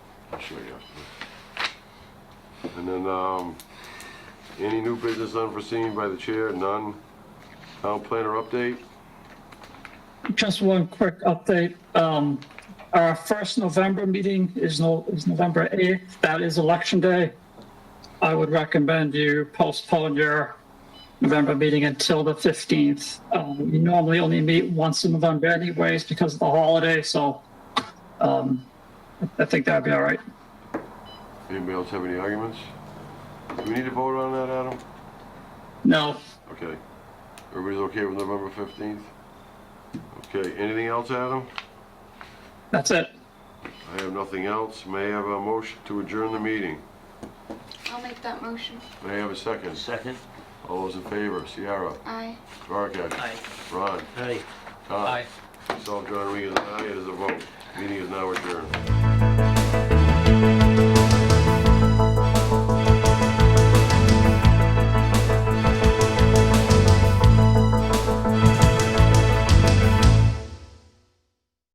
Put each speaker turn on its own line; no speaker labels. I'm sure you have. And then, um, any new business unforeseen by the chair? None. Town planner update?
Just one quick update. Um, Our first November meeting is no, is November 8th. That is election day. I would recommend you postpone your November meeting until the 15th. Um, You normally only meet once in November anyways because of the holiday, so um, I think that'd be all right.
Anybody else have any arguments? Do we need to vote on that, Adam?
No,
Okay. Everybody's okay with November 15th? Okay, anything else, Adam?
that's it.
I have nothing else. May I have a motion to adjourn the meeting?
I'll make that motion.
May I have a second?
Second?
All those in favor, Ciara,
Aye.
Duarkesh. Ron.
Aye.
Todd. Myself, John Regan, aye, it is a vote. Meeting is now adjourned.